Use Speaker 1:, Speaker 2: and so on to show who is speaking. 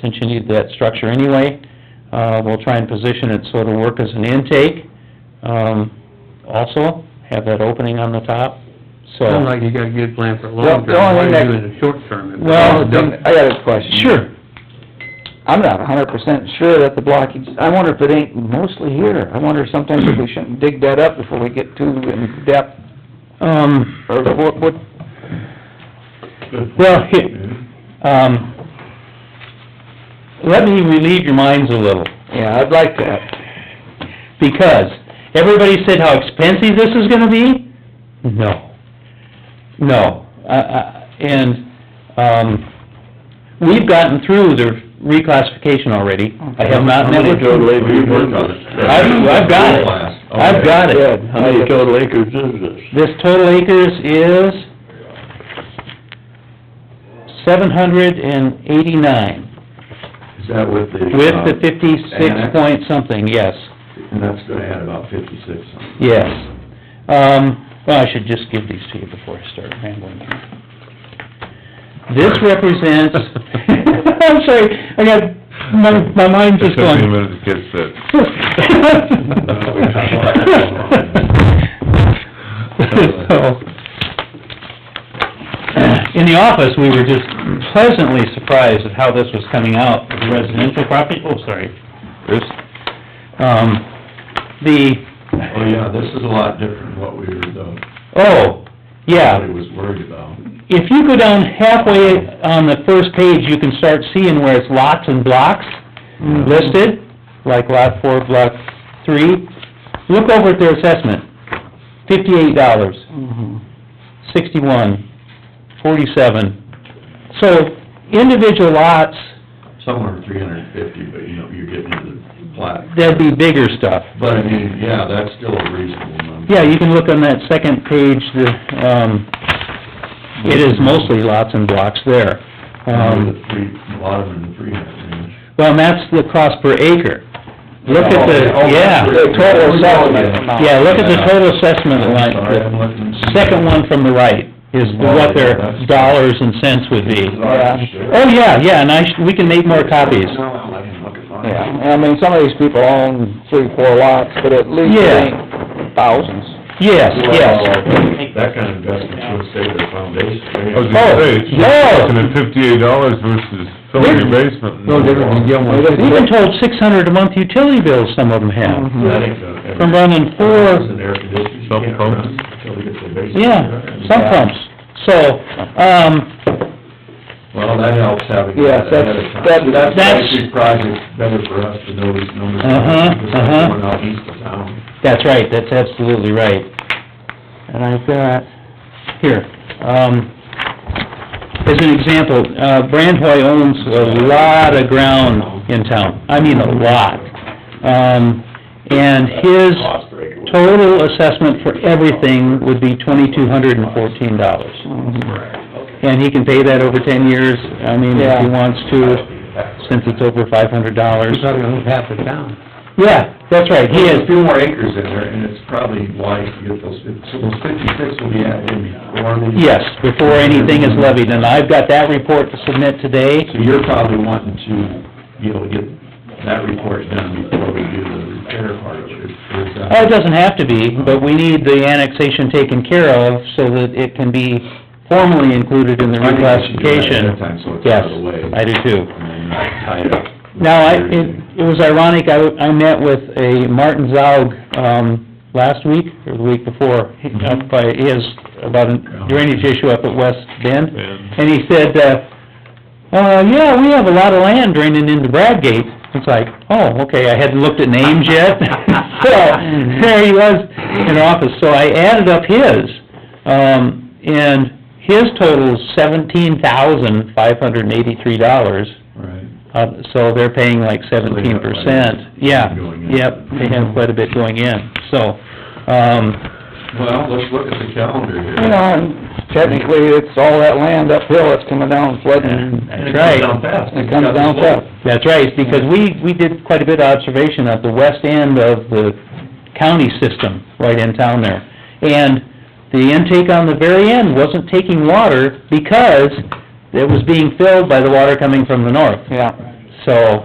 Speaker 1: since you need that structure anyway. Uh, we'll try and position it so it'll work as an intake, um, also, have that opening on the top, so.
Speaker 2: Sounds like you got a good plan for
Speaker 3: The-
Speaker 2: long
Speaker 3: the
Speaker 2: term, why
Speaker 3: only
Speaker 2: are
Speaker 3: thing
Speaker 2: you
Speaker 3: that-
Speaker 2: doing it short term? if it's
Speaker 3: Well,
Speaker 2: all done?
Speaker 3: I got a question. I'm not a hundred percent sure that the blockage, I wonder if it ain't mostly here. I wonder sometimes if we shouldn't dig that up before we get too in depth,
Speaker 1: Um,
Speaker 3: or what, what,
Speaker 1: well, he- um, let me relieve your minds a little.
Speaker 3: yeah, I'd like that.
Speaker 1: Because everybody said how expensive this is gonna be? No. No. Uh, uh, and, um, we've gotten through the reclassification already. I have not met with...
Speaker 4: acres worked on it?
Speaker 1: I've, I've got it. I've got it.
Speaker 4: How many total acres is this?
Speaker 1: This total acres is seven hundred and eighty-nine,
Speaker 4: Is that with the?
Speaker 1: with
Speaker 4: uh,
Speaker 1: the fifty-six
Speaker 4: annex?
Speaker 1: point something, yes.
Speaker 4: And that's gonna add about fifty-six.
Speaker 1: Yes. Um, well, I should just give these to you before I start rambling here. This represents, I'm sorry, I got, my, my mind's just
Speaker 5: It took me a
Speaker 1: going.
Speaker 5: minute to catch that.
Speaker 1: So, in the office, we were just pleasantly surprised at how this was coming out, the residential property, oh, sorry, Bruce. Um, the,
Speaker 4: Oh, yeah, this is a lot different than what we were, though,
Speaker 1: oh, yeah,
Speaker 4: what he was worried about.
Speaker 1: if you go down halfway on the first page, you can start seeing where it's lots and blocks Mm, listed, like lot four, block three. Look over at their assessment, fifty-eight dollars, sixty-one, forty-seven. So individual lots,
Speaker 4: Somewhere three hundred and fifty, but you know, you're getting into the plat.
Speaker 1: that'd be bigger stuff.
Speaker 4: But I mean, yeah, that's still a reasonable number.
Speaker 1: Yeah, you can look on that second page, the, um, it is mostly lots and blocks there. Um,
Speaker 4: With the three, a lot of them in the three hundred range.
Speaker 1: Well, and that's the cost per acre. Look at the,
Speaker 4: Oh, okay.
Speaker 1: yeah.
Speaker 4: The total assessment amount.
Speaker 1: Yeah, look at the total assessment
Speaker 4: I'm
Speaker 1: line,
Speaker 4: sorry, I'm looking.
Speaker 1: the second one from the right is what their dollars and cents would be.
Speaker 4: Yeah.
Speaker 1: Oh, yeah, yeah, and I, sh- we can make more copies.
Speaker 4: No, I'm looking, looking, looking.
Speaker 3: Yeah, I mean, some of these people own three, four lots, but at least
Speaker 1: Yeah.
Speaker 3: it ain't thousands.
Speaker 1: Yes, yes.
Speaker 4: Well, That kind of investment should stay with the foundation.
Speaker 5: I was gonna say, it's
Speaker 1: Oh,
Speaker 5: looking at fifty-eight dollars versus filling your basement.
Speaker 4: No different than Gilmore
Speaker 1: We've been told six hundred a month utility bills some of them have,
Speaker 3: Mm-hmm.
Speaker 1: from
Speaker 4: From
Speaker 1: running four
Speaker 4: And air conditioning, you
Speaker 5: Some
Speaker 4: can't
Speaker 5: pumps.
Speaker 4: run until we get the basement.
Speaker 1: Yeah,
Speaker 4: done.
Speaker 1: sump pumps. So, um,
Speaker 4: Well, that helps having
Speaker 3: Yes,
Speaker 4: that ahead
Speaker 3: that's-
Speaker 4: of time.
Speaker 3: that-
Speaker 4: That's
Speaker 1: that's-
Speaker 4: actually project better for us to know these numbers.
Speaker 1: Uh-huh,
Speaker 4: Because
Speaker 1: uh-huh.
Speaker 4: Going out east of town.
Speaker 1: That's right, that's absolutely right. And I've got, here, um, as an example, uh, Brandhoy owns a lot of ground in town, I mean a lot. Um, and his
Speaker 4: Cost per acre.
Speaker 1: total assessment for everything would be twenty-two hundred and fourteen dollars. And he can pay that over ten years, I mean, if
Speaker 3: Yeah.
Speaker 1: he wants to, since it's over five hundred dollars.
Speaker 2: You're probably gonna lose half the town.
Speaker 1: Yeah, that's right, he
Speaker 4: There's
Speaker 1: is,
Speaker 4: a few more acres in there, and it's probably wise to get those, fif- so those fifty-six will be added in before the...
Speaker 1: Yes, before anything is levied, and I've got that report to submit today.
Speaker 4: So you're probably wanting to be able to get that report done before we do the repair part of it. or is that-
Speaker 1: Oh, it doesn't have to be, but we need the annexation taken care of so that it can be formally included in the
Speaker 4: I think we should do that ahead of
Speaker 1: reclassification.
Speaker 4: time, so it's
Speaker 1: Yes,
Speaker 4: out of the way.
Speaker 1: I do too.
Speaker 4: And then not tie it up.
Speaker 1: Now, I, it, it was ironic, I, I met with a Martin Zaug, um, last week, or the week before, he- up by, he has about a drainage issue up at West Bend.
Speaker 5: Bend.
Speaker 1: And he said, uh, uh, yeah, we have a lot of land draining into Bradgate. It's like, oh, okay, I hadn't looked at names yet. So, there he was in office, so I added up his, um, and his total's seventeen thousand, five hundred and eighty-three dollars.
Speaker 4: Right.
Speaker 1: Uh, so they're paying like seventeen percent, yeah,
Speaker 4: Going in.
Speaker 1: yep, they have quite a bit going in, so, um,
Speaker 4: Well, let's look at the calendar here.
Speaker 3: You know, and technically, it's all that land uphill that's coming down flooding.
Speaker 4: And
Speaker 1: that's
Speaker 4: it comes
Speaker 1: right.
Speaker 4: down fast.
Speaker 3: It comes down fast.
Speaker 1: That's right, because we, we did quite a bit of observation at the west end of the county system, right in town there. And the intake on the very end wasn't taking water because it was being filled by the water coming from the north.
Speaker 3: Yeah.
Speaker 1: So,